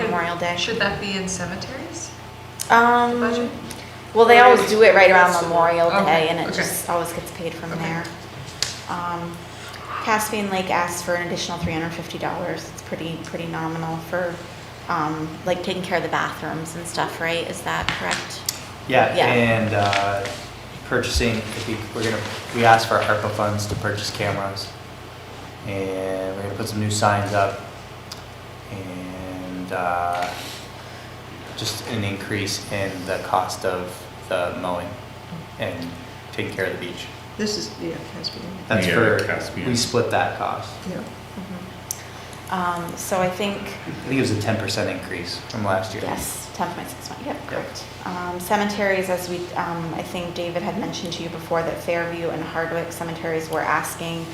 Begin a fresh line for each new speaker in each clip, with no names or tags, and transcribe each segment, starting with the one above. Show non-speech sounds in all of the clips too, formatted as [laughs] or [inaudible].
Memorial Day.
Should that be in cemeteries? budget?
Um, well, they always do it right around
That's the-
Memorial
okay,
Day and it
okay.
just always gets paid from
Okay.
there. Um, Caspian Lake asked for an additional three hundred and fifty dollars. It's pretty, pretty nominal for, um, like taking care of the bathrooms and stuff, right? Is that correct?
Yeah,
Yeah.
and uh, purchasing, if we, we're gonna, we asked for ARPA funds to purchase cameras. And we're gonna put some new signs up. And uh, just an increase in the cost of the mowing and taking care of the beach.
This is, yeah, Caspian.
That's
Yeah,
for,
Caspian.
we split that cost.
Yeah.
Mm-hmm.
Mhm. Um, so I think
I think it was a ten percent increase from last year.
Yes, ten point six one, yep, correct. Um, cemeteries, as we, um, I think David had mentioned to you before, that Fairview and Hardwick cemeteries were asking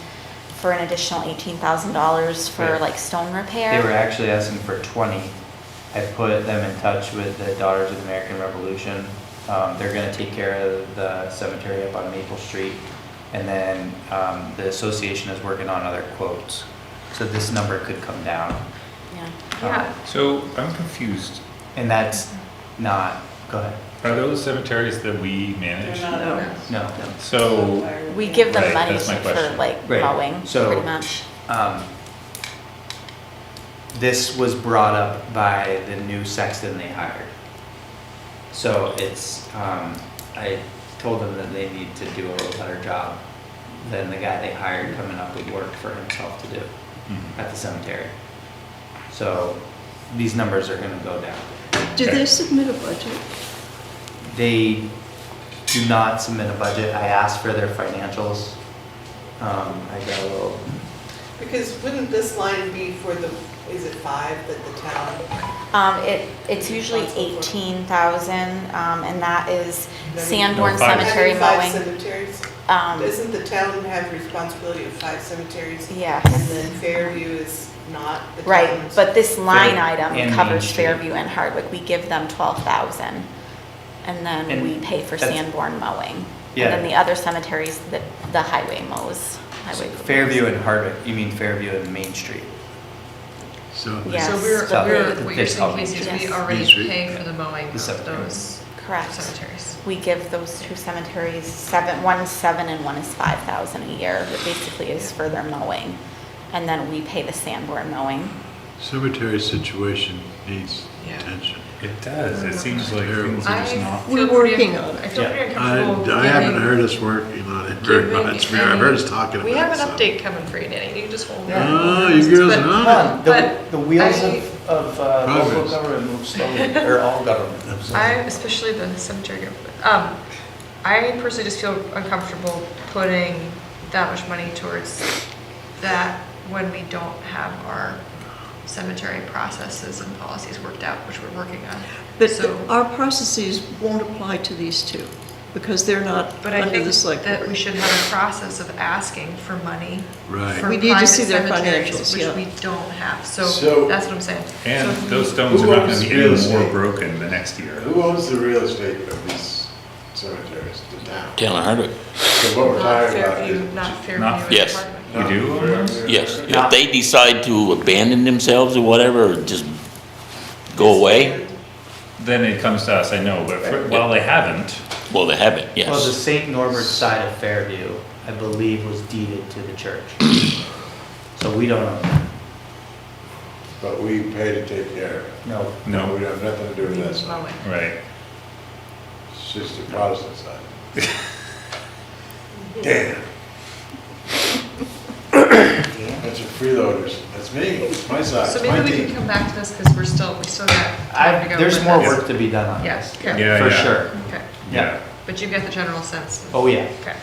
for an additional eighteen thousand dollars for
Right.
like stone repair.
They were actually asking for 20. I put them in touch with the Daughters of the American Revolution. Um, They're going to take care of the cemetery up on Maple Street. And then um, the association is working on other quotes. So this number could come down.
Yeah.
Um,
Yeah.
So I'm confused.
And that's not, go ahead.
Are those cemeteries that we manage?
No,
So,
We give them
Right,
money
that's my
for
question.
like
Right,
mowing,
so-
pretty much.
no. Um, This was brought up by the new sexton they hired. So it's, um, I told them that they need to do a little better job than the guy they hired coming up with work for himself to do
Mhm.
at the cemetery. So these numbers are gonna go down.
Did
Okay.
they submit a budget?
They do not submit a budget. I asked for their financials. Um, I got a little,
Because wouldn't this line be for the, is it five that the town?
Um, it, it's usually
Responsible for-
eighteen thousand, um, and that is
Then-
Sandborn
Well, five-
Cemetery
Having five
mowing.
cemeteries?
Um,
Doesn't the town have responsibility of five cemeteries?
Yes.
And then Fairview is not the town's?
Right, but this line item
and Main
covers
Street.
Fairview and Hardwick. We give them twelve thousand. And then
And
we pay for
that's-
Sanborn mowing.
Yeah.
And then the other cemeteries, the, the highway mows, highway.
Fairview and Hardwick, you mean Fairview and Main Street?
So
Yes,
So we're,
but
we're,
we-
what you're
It's all
thinking is we
these-
already
these-
pay for the mowing
The
of
cemeteries.
those
Correct.
cemeteries.
We give those two cemeteries seven, one is seven and one is five thousand a year, that basically is for their mowing. And then we pay the Sanborn mowing.
cemetery situation needs
Yeah.
attention.
it does, it seems like things are
I
just not.
We're
feel pretty-
working on it.
I feel
Yeah.
pretty
I,
uncomfortable
I haven't
giving-
heard us working on it very
giving
much. I've heard us
any-
talking about it.
We have an
so.
update coming for you, Danny, you just hold.
Yeah.
Oh, you girls
But-
know.
Come on, the,
But
the wheels
I-
of, of uh, local
Progress.
government move slowly, or all government.
I, especially the cemetery, group, um, I personally just feel uncomfortable putting that much money towards that when we don't have our cemetery processes and policies worked out, which we're working on.
But
So-
our processes won't apply to these two because they're not
But I
under
think
the select
that we
board.
should have a process of asking for money.
Right.
for
We need to
private
see their
cemeteries,
financials, yeah.
Which we don't have, so
So-
that's what I'm saying.
And
So-
those stones are
Who
not gonna
owns
be
real
any more
estate?
broken the next year.
Who owns the real estate of these cemeteries, the town?
Town of Hardwick,
So what we're
Not
talking about
Fairview,
is.
not Fairview.
Not-
and
Yes.
Hardwick.
We do own those?
yes.
Yeah.
If they decide to abandon themselves or whatever, or just go away,
Then it comes to us, I know, but for- while they haven't,
well, they haven't,
Well, the
yes.
St. Norbert side of Fairview, I believe, was deeded to the church. So we don't, own
But we pay to take care of it.
it. no,
No.
We have nothing to do with that side.
Mowing.
right,
It's just the Protestant
[laughs]
side. Damn. That's a freeloaders. That's me. It's my side.
So
It's my
maybe we
team.
can come back to this because we're still, we still got. time to
I,
go
there's
with
more
this.
work to be done on
Yes,
this.
okay,
Yeah,
For
yeah.
sure,
okay.
yeah.
But you get the general sense. of-
oh yeah.
Okay.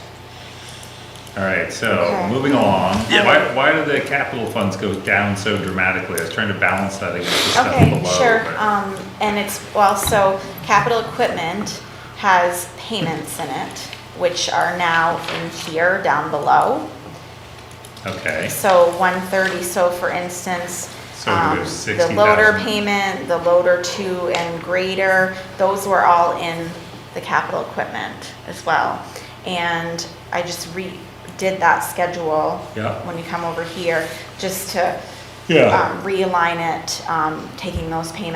All right, so
Okay.
moving along, why, why do the capital funds go down so dramatically? I was trying to balance that against the stuff below.
Okay, sure,
but-
um, and it's, well, so capital equipment has payments in it, which are now in here down below.
Okay,
So one thirty, so for instance,
So
um,
there's
the loader
60,000.
payment, the loader two and grader, those were all in the capital equipment as well. And I just redid that schedule.
Yeah.
When you come over here, just to
Yeah.
um, realign it, um, taking those payments